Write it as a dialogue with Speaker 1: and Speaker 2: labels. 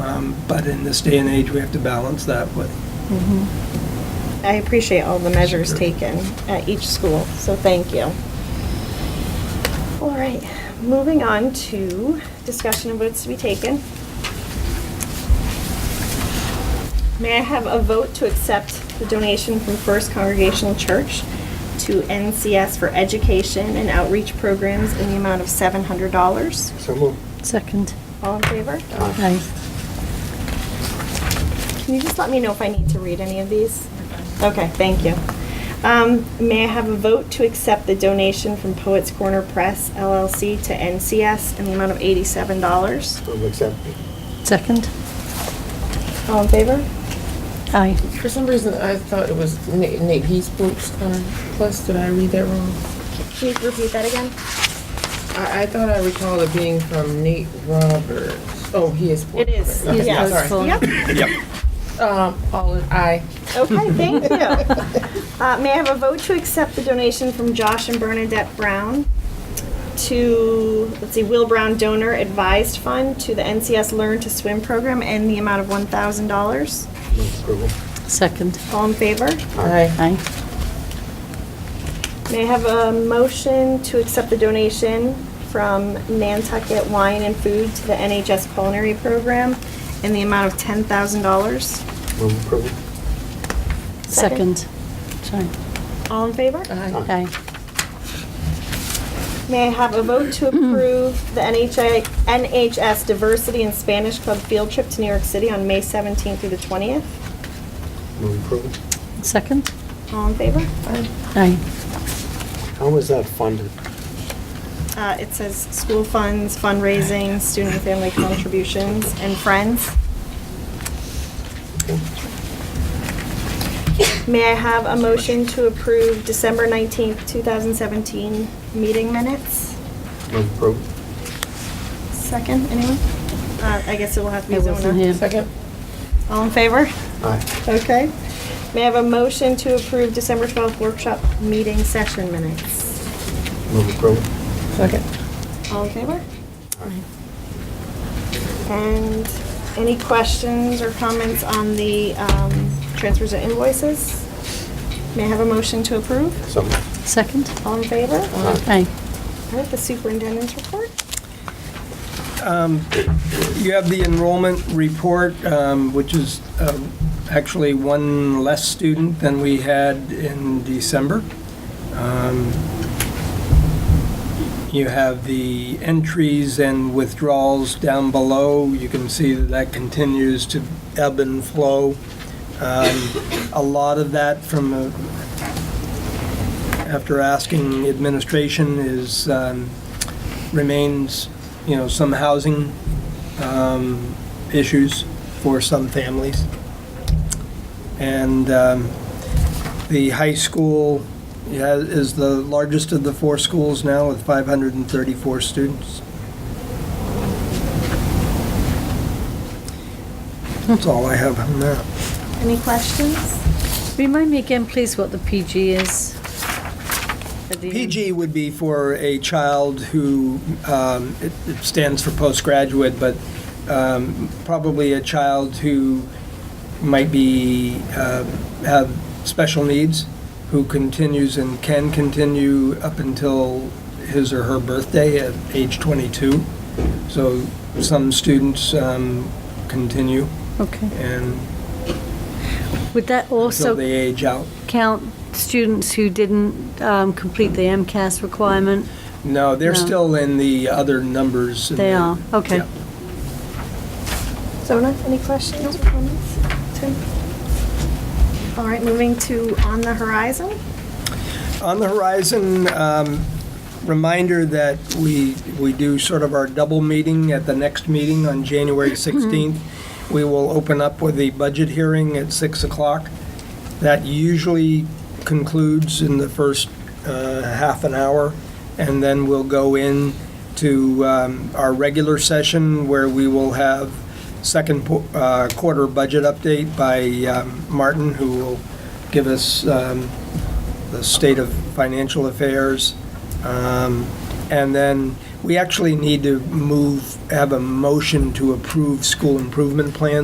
Speaker 1: Um, But in this day and age, we have to balance that with,
Speaker 2: I appreciate all the measures taken at each school, so thank you. All right, moving on to discussion of votes to be taken. May I have a vote to accept the donation from First Congregational Church to NCS for education and outreach programs in the amount of $700?
Speaker 3: So moved.
Speaker 4: Second.
Speaker 2: All in favor?
Speaker 4: Aye.
Speaker 2: Can you just let me know if I need to read any of these? Okay, thank you. Um, May I have a vote to accept the donation from Poets Corner Press LLC to NCS in the amount of $87?
Speaker 3: Move accept.
Speaker 4: Second.
Speaker 2: All in favor?
Speaker 4: Aye.
Speaker 5: For some reason, I thought it was Nate, Nate Heesbrook's um, plus. Did I read that wrong?
Speaker 2: Can you repeat that again?
Speaker 5: I, I thought I recalled it being from Nate Roberts. Oh, he is.
Speaker 2: It is,
Speaker 5: Okay,
Speaker 2: yes.
Speaker 5: sorry.
Speaker 2: Yep,
Speaker 5: Um, all in aye.
Speaker 2: okay, thank you. Uh, May I have a vote to accept the donation from Josh and Bernadette Brown to, let's see, Will Brown Donor Advised Fund to the NCS Learn to Swim Program in the amount of $1,000?
Speaker 3: Move approval.
Speaker 4: Second.
Speaker 2: All in favor?
Speaker 5: Aye.
Speaker 4: Aye.
Speaker 2: May I have a motion to accept the donation from Nantucket Wine and Food to the NHS Culinary Program in the amount of $10,000?
Speaker 3: Move approval.
Speaker 4: Second. Sorry.
Speaker 2: All in favor?
Speaker 5: Aye.
Speaker 4: Aye.
Speaker 2: May I have a vote to approve the NHI NHS Diversity and Spanish Club field trip to New York City on May 17th through the 20th?
Speaker 3: Move approval.
Speaker 4: Second.
Speaker 2: All in favor?
Speaker 4: Aye.
Speaker 3: How was that funded?
Speaker 2: Uh, It says school funds, fundraising, student and family contributions, and friends.
Speaker 3: Okay.
Speaker 2: May I have a motion to approve December 19th, 2017 meeting minutes?
Speaker 3: Move approval.
Speaker 2: Second, anyone? Uh, I guess it will have to be
Speaker 4: I wasn't
Speaker 2: Zona.
Speaker 4: here.
Speaker 5: Second.
Speaker 2: All in favor?
Speaker 3: Aye.
Speaker 2: Okay. May I have a motion to approve December 12th workshop meeting session minutes?
Speaker 3: Move approval.
Speaker 5: Second.
Speaker 2: All in favor?
Speaker 3: Aye.
Speaker 2: And any questions or comments on the um, transfers and invoices? May I have a motion to approve?
Speaker 3: So moved.
Speaker 4: Second.
Speaker 2: All in favor?
Speaker 3: Aye.
Speaker 4: Aye.
Speaker 2: All right, the superintendent's report?
Speaker 1: you have the enrollment report, um, which is um, actually one less student than we had in December. Um, You have the entries and withdrawals down below. You can see that that continues to ebb and flow. Um, A lot of that from, uh, after asking administration, is, um, remains, you know, some housing um, issues for some families. And um, the high school yeah, is the largest of the four schools now with 534 students. That's all I have on that.
Speaker 2: Any questions?
Speaker 4: Remind me again, please, what the PG is. At the end.
Speaker 1: PG would be for a child who, um, it it stands for postgraduate, but um, probably a child who might be, uh, have special needs, who continues and can continue up until his or her birthday at age 22. So some students um, continue
Speaker 4: Okay.
Speaker 1: and
Speaker 4: Would that
Speaker 1: until
Speaker 4: also
Speaker 1: they age out.
Speaker 4: count students who didn't um, complete the MCAS requirement?
Speaker 1: No, they're
Speaker 4: No.
Speaker 1: still in the other numbers. in
Speaker 4: They
Speaker 1: the-
Speaker 4: are. Okay.
Speaker 1: Yeah.
Speaker 2: Zona, any questions or comments? Tim? All right, moving to On the Horizon.
Speaker 1: On the horizon, um, reminder that we, we do sort of our double meeting at the next meeting on January 16th. We will open up with the budget hearing at 6 o'clock. That usually concludes in the first uh, half an hour, and then we'll go in to um, our regular session where we will have second po- uh, quarter budget update by um, Martin, who will give us um, the state of financial affairs, um, And then we actually need to move, have a motion to approve school improvement plans.